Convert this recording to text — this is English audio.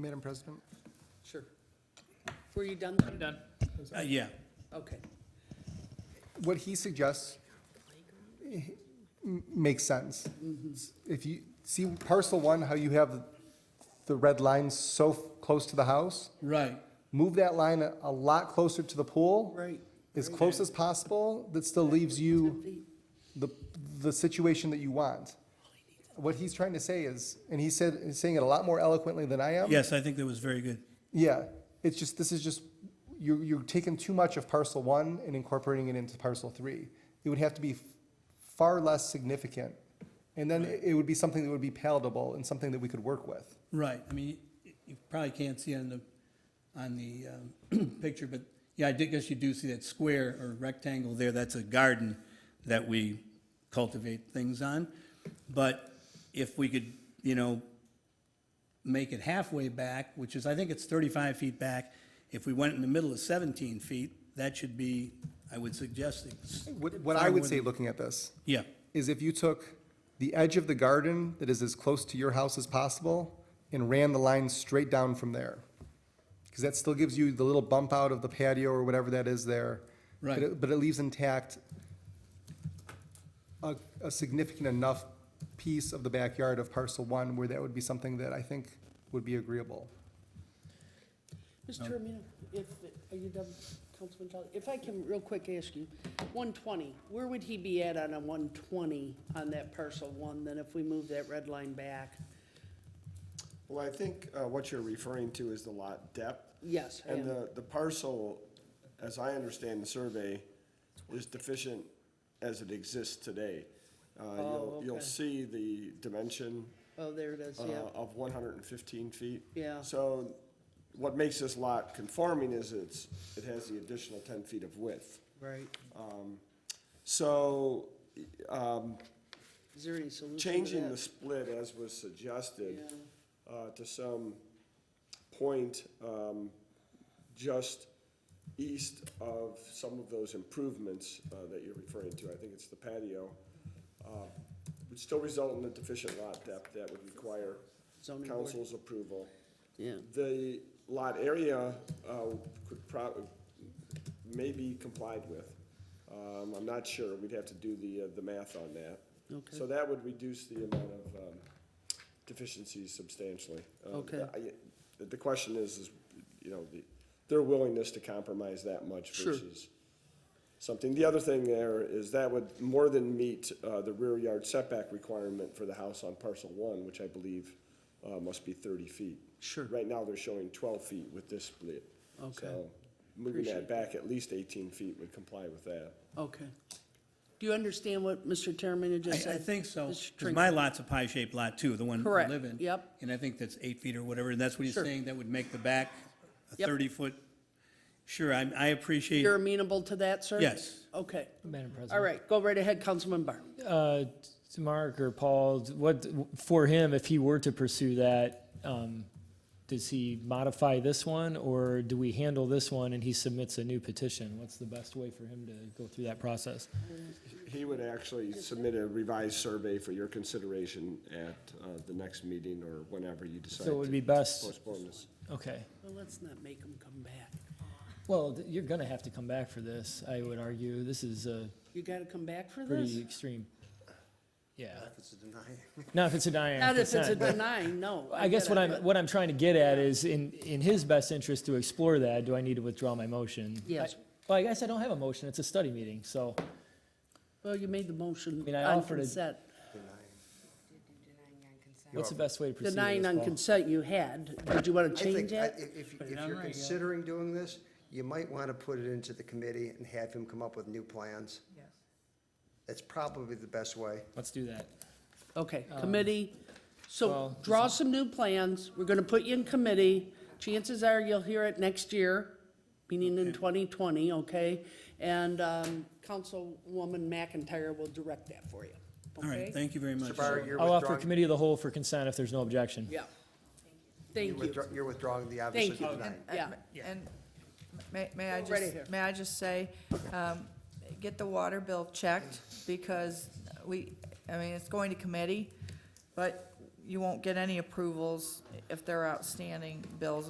Madam President? Sure. Were you done? I'm done. Uh, yeah, Okay. What he suggests eh, m- makes sense. If you, see parcel one, how you have the red line so f- close to the house? right. Move that line a- a lot closer to the pool. Right. As close as possible, that still leaves you the, the situation that you want. What he's trying to say is, and he said, he's saying it a lot more eloquently than I am. Yes, I think that was very good. Yeah, it's just, this is just, you're, you're taking too much of parcel one and incorporating it into parcel three. It would have to be f- far less significant. And then it would be something that would be palatable and something that we could work with. Right, I mean, y- you probably can't see on the, on the um, picture, but yeah, I did guess you do see that square or rectangle there, that's a garden that we cultivate things on. But if we could, you know, make it halfway back, which is, I think it's thirty-five feet back. If we went in the middle of seventeen feet, that should be, I would suggest, it's- What, what I would say, looking at this, yeah, is if you took the edge of the garden that is as close to your house as possible and ran the line straight down from there. Because that still gives you the little bump out of the patio or whatever that is there. but Right. it- But it leaves intact a, a significant enough piece of the backyard of parcel one where that would be something that I think would be agreeable. Mr. Amino, if, are you done, Councilman Kelly? If I can, real quick, ask you, 120, where would he be at on a 120 on that parcel one, then if we move that red line back? Well, I think uh, what you're referring to is the lot depth. Yes, I And am. the, the parcel, as I understand the survey, is deficient as it exists today. Uh, Oh, You'll, you'll okay. see the dimension Oh, there it is, uh, yeah. of 115 feet. Yeah. So what makes this lot conforming is it's, it has the additional 10 feet of width. Right. So Is there any solution to changing that? the split as was suggested Yeah. uh, to some point um, just east of some of those improvements uh, that you're referring to, I think it's the patio, uh, would still result in a deficient lot depth that would require Zoning board. council's approval. Yeah, The lot area uh, could probably, may be complied with. Um, I'm not sure, we'd have to do the, uh, the math on that. Okay. So that would reduce the amount of um, deficiencies substantially. Um, Okay. I- the- The question is, is, you know, the- their willingness to compromise that much Sure. versus something. The other thing there is that would more than meet uh, the rear yard setback requirement for the house on parcel one, which I believe uh, must be thirty feet. Sure. Right now, they're showing twelve feet with this split. Okay. So Moving Appreciate that back at least eighteen feet would comply with that. okay. Do you understand what Mr. Terman I, just said? I think so, Mr. because my Trinket? lot's a pie-shaped lot too, the one we Correct, live in. yep. And I think that's eight feet or whatever, and that's what he's Sure. saying, that would make the back a Yep. thirty-foot. Sure, I, I appreciate, You're amenable to that, sir? Yes. Okay. Madam All President. right, go right ahead, Councilman Barr. Uh, to Mark or Paul, what, for him, if he were to pursue that, um, does he modify this one or do we handle this one and he submits a new petition? What's the best way for him to go through that process? He would actually submit a revised survey for your consideration at uh, the next meeting or whenever you decide So it would be to best, postpone this. okay. Well, let's not make him come back. Well, th- you're gonna have to come back for this, I would argue. This is a You gotta come back for this? pretty extreme, yeah. Not if it's a denying. Not if it's a consent, but- denying, no. I guess get what it, I'm, but- what I'm trying to get at is, in, in his best interest to explore that, do I need to withdraw my motion? Yes. I- Well, I guess I don't have a motion, it's a study meeting, so, Well, you made the motion mean, I on offered a- consent. what's the best way to proceed? with Denying this, on Paul? consent you had. Did you want I to change think, I- that? if, if- if you're considering doing this, you might want to put it into the committee and have him come up with new plans. Yes. That's probably the best way. Let's do that. Okay, committee, so Um, well, draw some new plans. We're gonna put you in committee. Chances are you'll hear it next year, meaning in twenty twenty, okay? And, um, Councilwoman McIntyre will direct that for you. all right, okay? thank you very much. Mr. Byer, you're I'll offer withdrawing- committee of the whole for consent if there's no objection. Yeah. Thank you're you. withdraw- You're withdrawing the, obviously, you. tonight. Yeah. And may, may I Go right ahead. just, may I just say, um, get the water bill checked, because we, I mean, it's going to committee, but you won't get any approvals if they're outstanding bills